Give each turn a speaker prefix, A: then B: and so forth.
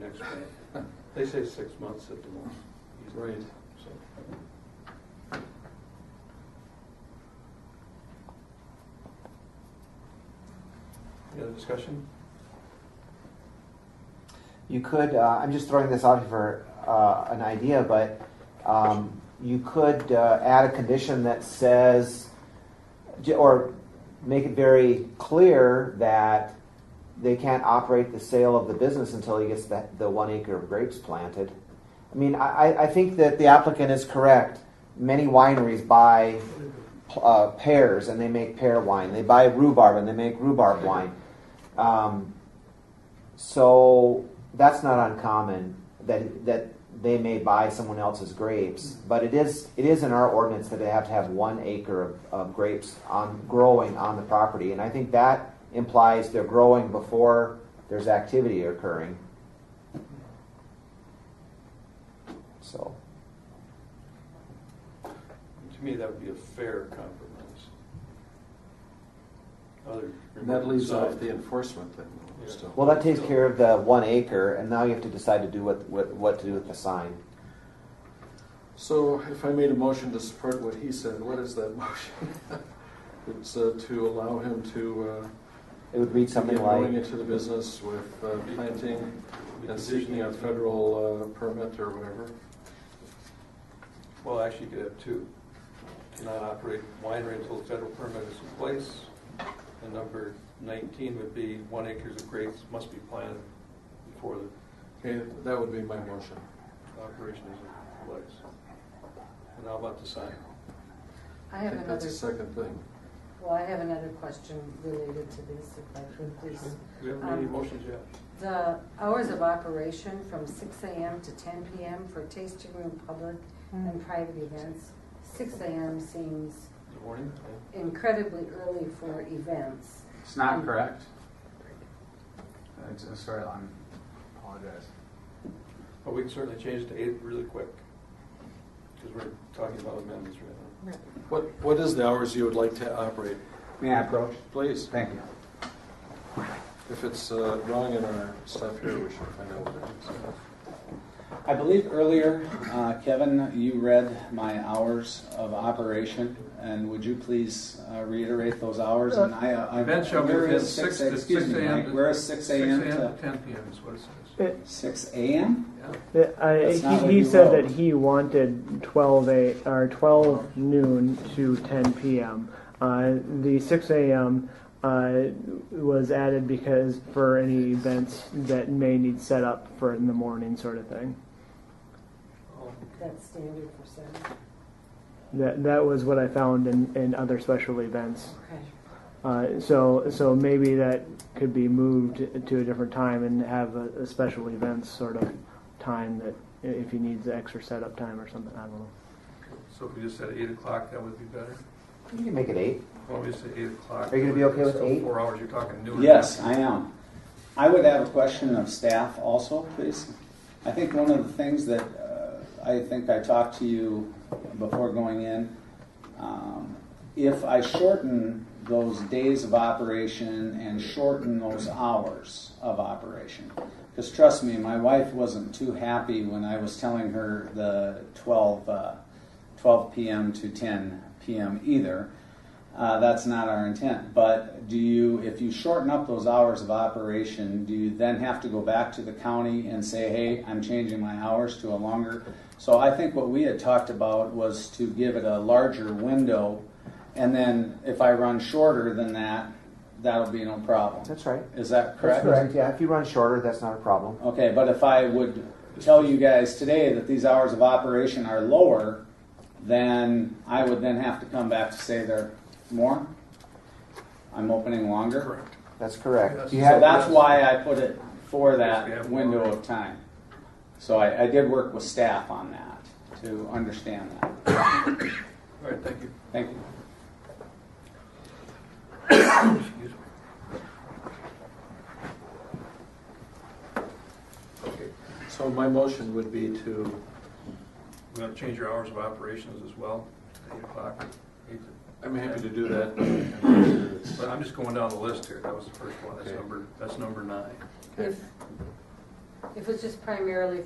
A: next one. They say six months at the most.
B: Right.
A: So, Any other discussion?
C: You could, uh, I'm just throwing this out for uh, an idea, but um, you could uh, add a condition that says, j- or make it very clear that they can't operate the sale of the business until he gets the, the one acre of grapes planted. I mean, I, I- I think that the applicant is correct. Many wineries buy uh, pears and they make pear wine. They buy rhubarb and they make rhubarb wine. Um, so that's not uncommon that that they may buy someone else's grapes, but it is it is in our ordinance that they have to have one acre of, of grapes on growing on the property, and I think that implies they're growing before there's activity occurring. So
A: To me, that would be a fair compromise. Other.
B: And that leaves off
A: side.
B: the enforcement thing. though,
A: Yeah.
B: still.
C: well, that takes care of the one acre, and now you have to decide to do what what, what to do with the sign.
B: So if I made a motion to support what he said, what is that motion? It's uh, to allow him to
C: It would read
B: uh,
C: something
B: begin going
C: like
B: into the business with uh, planting and seeking a federal uh, permit or whatever.
A: Well, actually, you could have two. Cannot operate winery until the federal permit is in place. And number 19 would be one acres of grapes must be planted before the
B: Okay, that would be my motion.
A: operation is in place. And how about the sign?
D: I
B: I
D: have
B: think that's
D: another,
B: the second thing.
D: well, I have another question related to this, if I could please.
A: Do we have any
D: Um,
A: motions yet?
D: The hours of operation from six AM to ten PM for tasting room, public and private events. Six AM seems
A: Good morning.
D: incredibly early for events.
E: It's not correct. It's, uh, sorry, I'm apologize.
A: But we can certainly change it to eight really quick. Because we're talking about amendments right now.
B: What, what is the hours you would like to operate?
E: May I approach?
B: Please,
E: Thank you.
B: if it's uh, wrong in our stuff here, we should find out what it is.
E: I believe earlier, uh, Kevin, you read my hours of operation, and would you please uh, reiterate those hours? And I, I.
A: Event shall be
E: where
A: within
E: is
A: six, to six
E: Excuse me,
A: AM.
E: Mike,
A: to-
E: where is six AM to?
A: Ten PM is what it says.
F: It,
E: Six AM?
A: Yeah.
F: it, I,
E: That's not what
F: uh, he, he
E: you
F: said
E: wrote.
F: that he wanted 12 a, or 12 noon to 10 p.m. Uh, the 6 a.m. Uh, was added because for any events that may need setup for in the morning sort of thing.
D: That's standard for seven.
F: That that was what I found in, in other special events.
D: Okay.
F: Uh, so so maybe that could be moved to a different time and have a, a special events sort of time that if he needs extra setup time or something. I don't know.
A: So if we just said eight o'clock, that would be better?
C: you can make it eight.
A: Obviously, eight o'clock.
C: Are you gonna be okay with
A: Still
C: eight?
A: Four hours, you're talking noon.
E: Yes, I am. I would have a question of staff also, please. I think one of the things that uh, I think I talked to you before going in, um, if I shorten those days of operation and shorten those hours of operation, because trust me, my wife wasn't too happy when I was telling her the 12, uh, 12 p.m. to 10 p.m. either. Uh, that's not our intent. But do you, if you shorten up those hours of operation, do you then have to go back to the county and say, hey, I'm changing my hours to a longer? So I think what we had talked about was to give it a larger window, and then if I run shorter than that, that'll be no problem.
C: That's right.
E: Is that
C: That's
E: correct?
C: correct. Yeah, if you run shorter, that's not a problem.
E: Okay, but if I would tell you guys today that these hours of operation are lower, then I would then have to come back to say they're more? I'm opening longer?
A: Correct.
C: That's correct.
A: Yes.
C: You
E: So
C: have,
E: that's why I put it for
A: We have
E: that
A: more.
E: window of time. So I, I did work with staff on that to understand that.
A: All right, thank you.
E: Thank you.
A: Excuse me. Okay,
B: So my motion would be to,
A: we're gonna change your hours of operations as well, to eight o'clock. eight to-
B: I'm happy to do that.
A: But I'm just going down the list here, that was the first one, that's
B: Okay.
A: number, that's number nine.
B: Okay.
D: If, If it's just primarily